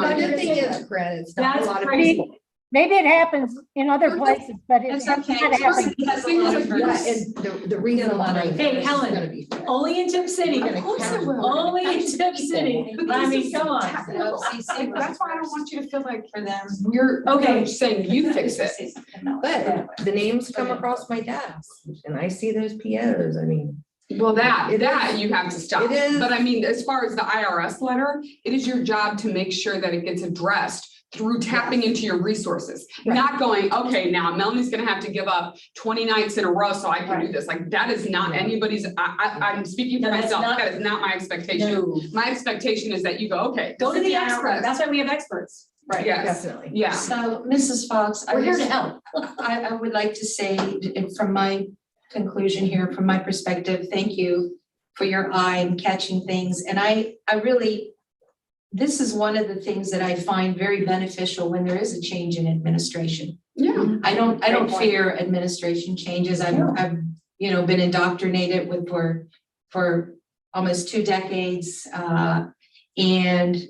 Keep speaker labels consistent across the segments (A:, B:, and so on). A: good thing is, Grant, it's not a
B: That's
A: lot of
B: crazy.
A: people.
C: Maybe it happens in other
A: It's
C: places, but it.
D: It's
C: has
D: okay.
C: not happened.
D: Because a lot of
A: Yeah,
D: groups-
A: and the, the reason.
D: Get a lot of-
A: why
B: Hey,
A: this is
B: Helen.
A: gonna be fair.
B: Only in Tip City,
A: Of course it will.
B: only in Tip City, I mean, come on.
D: The FCC was
E: That's why I don't
D: first.
E: want you to feel like for them, we're, okay,
B: Okay.
E: saying you fix it.
A: But the names come
D: Okay.
A: across my desk and I see those POs, I mean,
E: Well, that,
A: It
E: that
A: is-
E: you have to stop.
A: it is-
E: But I mean, as far as the IRS letter, it is your job to make sure that it gets addressed through tapping into your resources.
A: Right.
E: Not going, okay, now Melanie's gonna have to give up twenty nights in a row so I can do this. Like, that is not anybody's, I, I, I'm speaking for
B: No, that's
E: myself.
B: not-
E: That is not my expectation.
B: No.
E: My expectation is that you go, okay.
B: Go to
E: this
B: the
E: is
B: experts, that's why we have experts.
E: Right, yes,
A: definitely.
E: yeah.
D: So, Mrs. Fox, I
B: We're here
D: was-
B: to help.
D: I, I would like to say, it- from my conclusion here, from my perspective, thank you for your eye and catching things. And I, I really, this is one of the things that I find very beneficial when there is a change in administration.
E: Yeah.
D: I don't, I don't
B: Great point.
D: fear administration changes. I've,
B: No.
D: I've, you know, been indoctrinated with for, for almost two decades. uh, And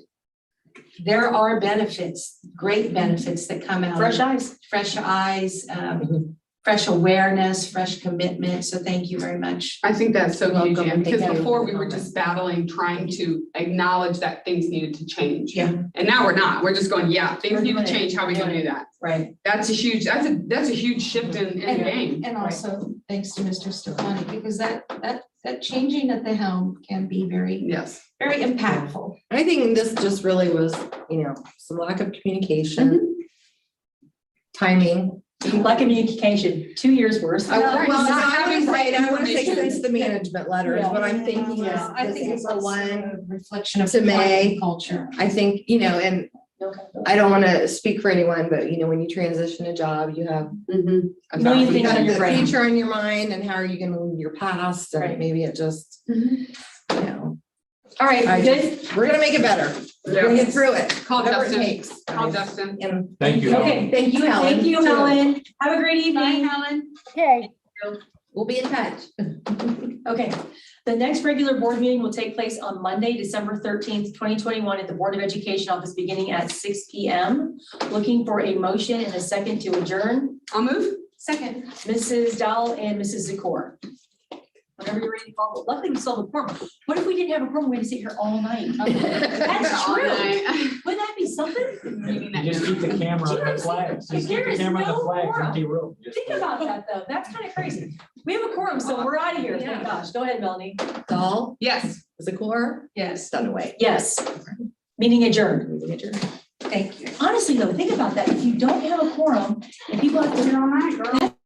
D: there are benefits, great benefits that come out. of
B: Fresh eyes.
D: Fresh e- eyes, um,
A: Mhm.
D: fresh awareness, fresh commitment. So thank you very much.
E: I think that's so huge,
D: Welcome.
E: Jan, because
D: Thank you.
E: before we were just battling, trying to acknowledge that things needed to change.
D: Yeah.
E: And now we're not. We're just going, yeah, things
D: We're
E: need to
D: doing it.
E: change. How we gonna do that?
D: Right.
E: That's a huge, that's a, that's a huge shift in, in the game.
D: And also thanks to Mr. Stefani, because that, that, that changing at the helm can be very,
E: Yes.
D: very impactful.
A: I think this just really was, you know, some lack of
E: Mm-hmm.
D: Mm-hmm,
A: communication. Timing.
B: Lack of communication, two years worse.
A: I-
D: No,
A: right,
D: well,
A: so
D: not
A: I
E: having
A: was
E: right
A: right, I want to say
E: information.
A: since the management letter is what I'm thinking is
D: Yeah, I
A: this
D: think it's
A: April
D: also
A: one.
D: a Reflection of.
A: to May.
D: Hawaiian Culture.
A: I think, you know, and I don't want to speak for anyone, but you know, when you transition a job, you have
D: mm-hmm.
E: Million
A: a thousand
B: things on
A: things-
B: your
A: the
B: brain.
A: Future on your mind and how are you going to move your past and
B: Right.
A: maybe it just, you know.
B: All right,
A: I
B: we good?
A: We're going to make it better. We're going to get through it.
E: Call
A: Whatever it
E: Dustin,
A: takes.
E: call Dustin.
A: And
F: Thank you. Helen.
B: Okay.
A: thank you, Helen.
B: Thank you,
A: too.
B: Helen. Have a great evening.
D: Helen.
C: Okay.
A: We'll be in touch.
B: Okay, the next regular board meeting will take place on Monday, December thirteenth, twenty twenty-one at the Board of Education office beginning at six P M. Looking for a motion and a second to adjourn,
E: I'll move.
D: Second.
B: Mrs. Dowell and Mrs. Zakor. Whenever you're ready, to follow. Luckily, we still have a forum. What if we didn't have a forum? We'd have to sit here all night. That's
E: All
B: true.
E: night.
B: Wouldn't that be something?
F: You Just keep the camera on the flags, just keep
B: There
F: the
B: is
F: camera on
B: no
F: the flags,
B: moral.
F: empty room. Just
B: Think
F: do it.
B: about that, though. That's kind of crazy. We have a quorum, so we're out of here. Thank gosh. Go ahead, Melanie.
A: Dahl,
E: Yes.
A: Zakor,
D: Yes,
A: Dunaway.
B: Yes. Meeting adjourned.
A: Meeting adjourned.
D: thank you.
B: Honestly, though, think about that. If you don't have a quorum and people have to
E: All right, girl.